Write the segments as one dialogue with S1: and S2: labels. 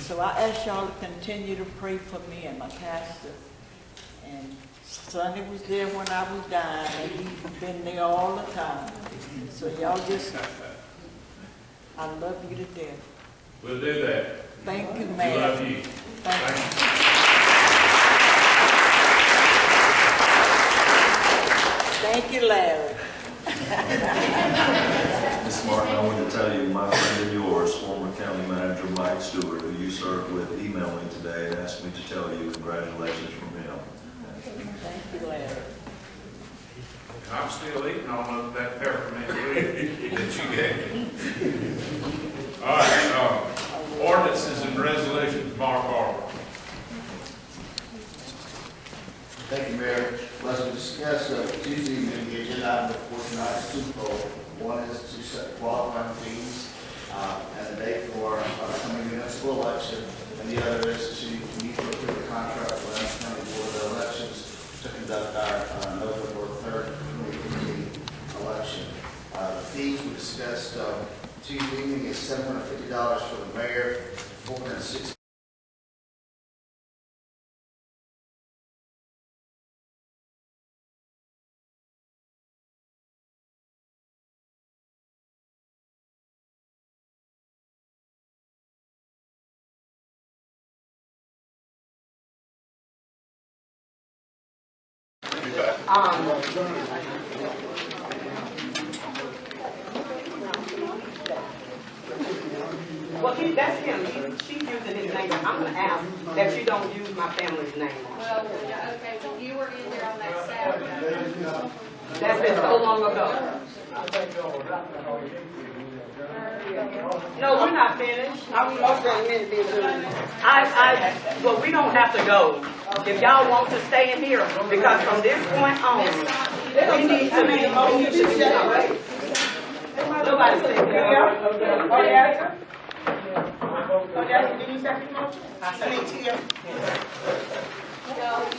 S1: So I ask y'all to continue to pray for me and my pastor. And Sonny was there when I was dying, and he's been there all the time. So y'all just, I love you to death.
S2: We'll do that.
S1: Thank you,
S2: We
S1: man.
S2: love you.
S1: Thank you.
S2: Thank
S1: Thank you, Larry.
S3: Ms. Martin, I want to tell you, my friend and yours, former county manager Mike Stewart, who you served with, emailed me today and asked me to tell you congratulations from him.
S1: Thank you, Larry.
S2: you. I'm still eating all of that peppermint leaf that you gave me. All right, uh, ordinances and resolutions, Mark Arlen.
S4: Thank you, Mayor. Let's discuss uh, Tuesday, evening, the agenda item for tonight's Super Bowl. One is to set qualifying fees uh, and a date for upcoming municipal election, and the other is to meet for the contract with Adams County Board of Elections to conduct our uh, November third, twenty fifteen election. Uh, The fees we discussed uh, Tuesday evening is seven hundred fifty dollars for the mayor, four hundred sixty
S5: Well, he, that's him, He's- she's using his name, I'm gonna ask that you don't use my family's name.
S6: Well, okay, you were in there on that Saturday.
S5: That's been so long ago. No, we're not finished. I'm most done minute being I, I, well, we don't have to go. If y'all want to stay in here, because from this point on, we need to make, we need to do something. Nobody say that. Okay, do you second motion? I mean, Tia.
S6: Joe,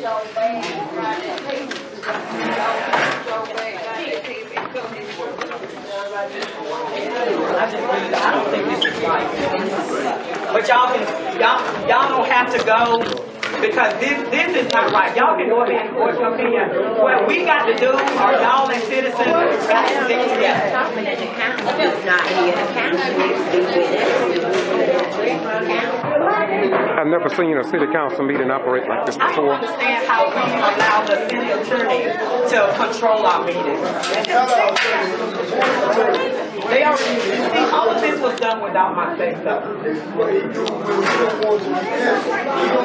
S6: Joe Bag, right at Pete. Joe Bag, right at Pete, and come in for
S5: I just really, I don't think this is right. But y'all can, y'all, y'all don't have to go, because this, this is not right. Y'all can go ahead and voice your opinion. What we got to do, are y'all and citizens, got to stick together.
S7: Talking that the council is not here, the council needs to be with us.
S8: I've never seen a city council meeting operate like this
S5: I don't
S8: before.
S5: understand how we allow the city attorney to control our meetings. They already, see, all of this was done without my say so.
S9: You don't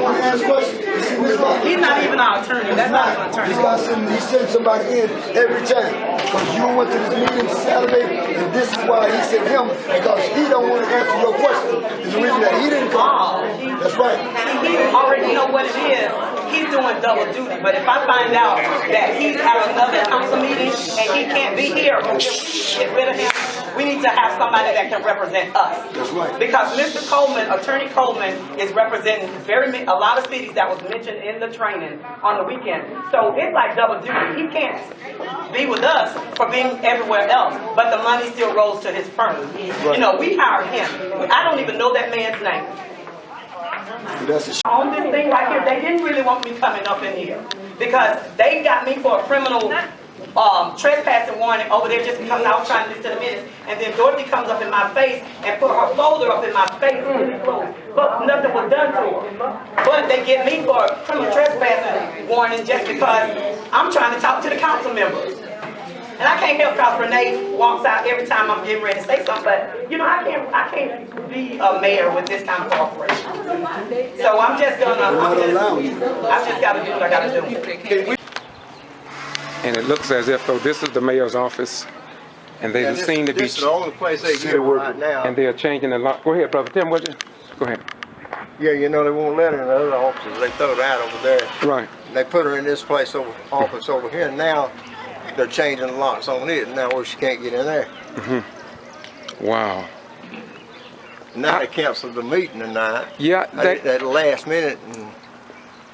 S9: want to ask questions. You see, Ms. Locke,
S5: He's not even our attorney, that's not an attorney.
S9: That's why I send, he sends somebody in every time. Because you went to this meeting Saturday, and this is why he sent him, because he don't want to answer your question. It's the reason that he didn't
S5: Oh.
S9: come. That's right.
S5: He already know what it is. He's doing double duty, but if I find out that he's at another council meeting and he can't be here, then we need to get rid of him. We need to have somebody that can represent us.
S9: That's right.
S5: Because Mr. Coleman, Attorney Coleman, is representing very, ma- a lot of cities that was mentioned in the training on the weekend. So it's like double duty. He can't be with us for being everywhere else, but the money still rolls to his firm. You know, we hired him. I don't even know that man's name
S9: That's the sh-
S5: on this thing right here, they didn't really want me coming up in here. Because they got me for a criminal, um, trespassing warning over there just because I was trying to listen to the minutes. And then Dorothy comes up in my face and put her folder up in my face, but nothing was done to her. But they get me for a criminal trespassing warning just because I'm trying to talk to the council members. And I can't help cause Renee walks out every time I'm getting ready to say something, but, you know, I can't, I can't be a mayor with this kind of cooperation. So I'm just gonna, I'm
S9: They're not allowing
S5: just, I've just gotta do what I gotta do.
S8: And it looks as if though this is the mayor's office and they seem to be,
S4: the place they
S8: get it
S4: right now.
S8: and they are changing a lot. Go ahead, brother Tim, what you, go ahead.
S4: Yeah, you know, they won't let her in the other offices. They throw her out over there.
S8: Right.
S4: They put her in this place over, office over here. and Now they're changing the locks on it. Now where she can't get in there.
S8: Wow.
S4: Now they canceled the meeting tonight.
S8: Yeah,
S4: At
S8: they,
S4: at the last minute and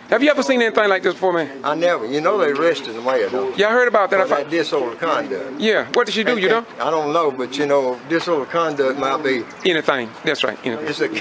S8: have you ever seen anything like this before, man?
S4: I never, you know, they arrested the mayor though.
S8: Yeah, I heard about that. I
S4: For
S8: fi-
S4: that disorder conduct.
S8: Yeah, what did she do, you know?
S4: I don't know, but you know, disorder conduct might be,
S8: Anything, that's right, anything.
S4: it's a